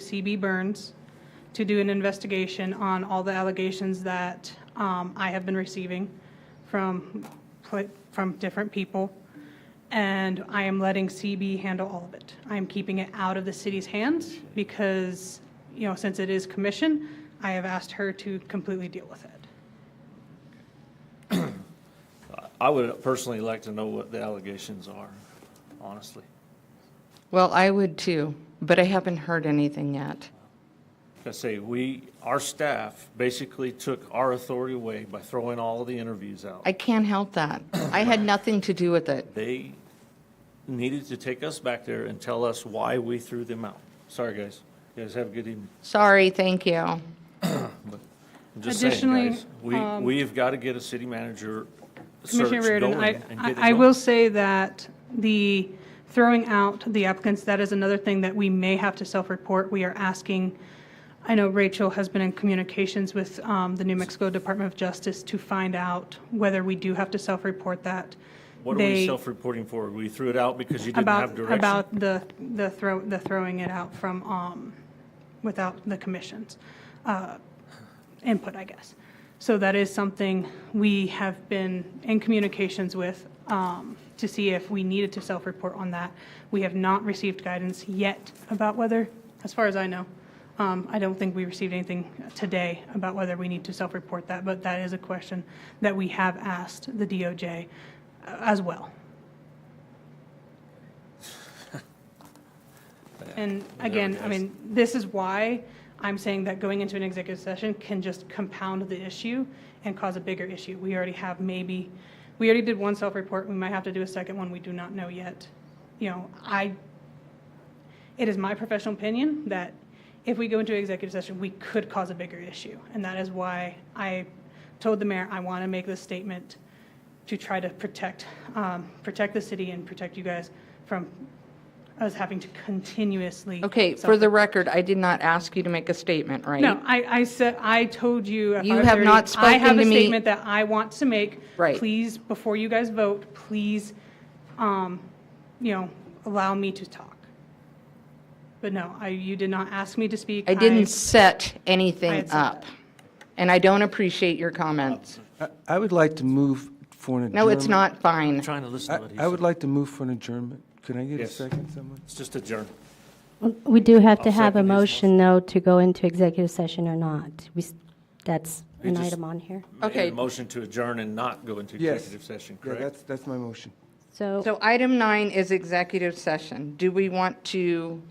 C.B. Burns to do an investigation on all the allegations that um, I have been receiving from, pla- from different people. And I am letting CB handle all of it. I am keeping it out of the city's hands because, you know, since it is commission, I have asked her to completely deal with it. I would personally like to know what the allegations are, honestly. Well, I would too, but I haven't heard anything yet. Like I say, we, our staff basically took our authority away by throwing all of the interviews out. I can't help that. I had nothing to do with it. They needed to take us back there and tell us why we threw them out. Sorry, guys. You guys have a good evening. Sorry, thank you. I'm just saying, Additionally, um, guys, we, we have got to get a city manager search Commissioner Reardon, going and I, get it I I done. will say that the throwing out the applicants, that is another thing that we may have to self-report. We are asking, I know Rachel has been in communications with um, the New Mexico Department of Justice to find out whether we do have to self-report that. What are They- we self-reporting for? We threw it out because you didn't have About, direction? about the, the throw, the throwing it out from, um, without the commission's, uh, input, I guess. So that is something we have been in communications with, um, to see if we needed to self-report on that. We have not received guidance yet about whether, as far as I know. Um, I don't think we received anything today about whether we need to self-report that, but that is a question that we have asked the DOJ uh, as well. And again, I mean, this is why I'm saying that going into an executive session can just compound the issue and cause a bigger issue. We already have maybe, we already did one self-report, we might have to do a second one, we do not know yet. You know, I, it is my professional opinion that if we go into executive session, we could cause a bigger issue. And that is why I told the mayor, I want to make this statement to try to protect, um, protect the city and protect you guys from us having to continuously. Okay, for the record, I did not ask you to make a statement, right? No, I, I said, I told you. at You have 5:30, not I have spoken a to me- statement that I want to make. Right. Please, before you guys vote, please, um, you know, allow me to talk. But no, I, you did not ask me to speak. I didn't set I anything had said up, and I don't appreciate your comments. I- I would like to move for an adjournment. No, it's not fine. Trying to listen to what he I I would said. like to move for an adjournment. Can I get a Yes. second, someone? It's just adjourn. We do have to I'll have a second his motion, though, to go into executive session or not. We, s- that's You an just- item on here. Okay. A motion to adjourn and not go into Yes. executive session, Yeah, correct? that's, that's my motion. So So item nine is executive session. Do we want to?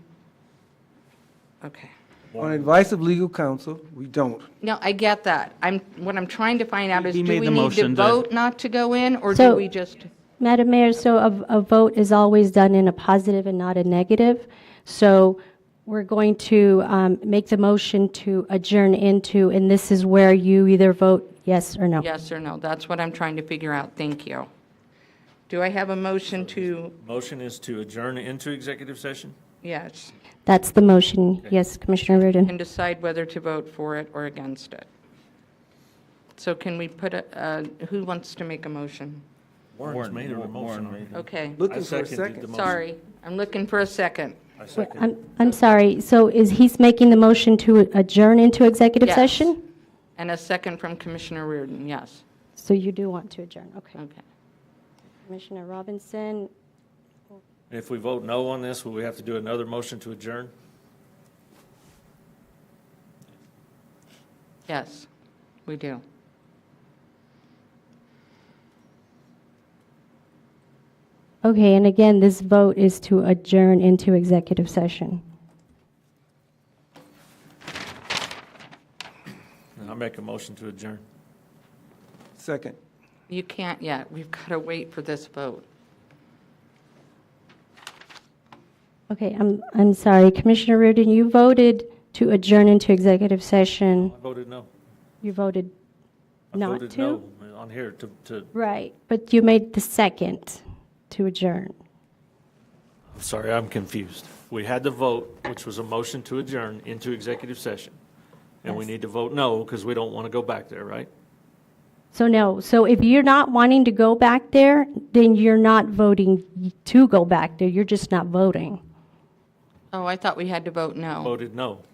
Okay. On advice of legal counsel, we don't. No, I get that. I'm, what I'm trying to find out is, He do made we the need to motion to- vote not to go in, or do So- we just? Madam Mayor, so a, a vote is always done in a positive and not a negative. So we're going to um, make the motion to adjourn into, and this is where you either vote yes or no. Yes or no? That's what I'm trying to figure out. Thank you. Do I have a motion to, Motion is to adjourn into executive session? yes, That's the motion. Yes, Commissioner Reardon. and decide whether to vote for it or against it? So can we put a, a- who wants to make a motion? Warren's made a motion already. Okay, Looking for a seconded the second. mo- sorry, I'm looking for a second. I Wait, second. I'm, I'm sorry. So is he's making the motion to adjourn into executive Yes. session? And a second from Commissioner Reardon, yes. So you do want to adjourn, okay. Okay. Commissioner Robinson, If we vote no on this, will we have to do another motion to adjourn? Yes, we do. okay, and again, this vote is to adjourn into executive session. And I make a motion to adjourn. Second. You can't yet. We've got to wait for this vote. Okay, I'm, I'm sorry, Commissioner Reardon, you voted to adjourn into executive session. I voted no. You voted I not voted to? no on here to, to, Right, but you made the second to adjourn. I'm sorry, I'm confused. We had the vote, which was a motion to adjourn into executive session. And we Yes. need to vote no because we don't want to go back there, right? So no, so if you're not wanting to go back there, then you're not voting to go back there, you're just not voting. Oh, I thought we had to vote no. Voted no.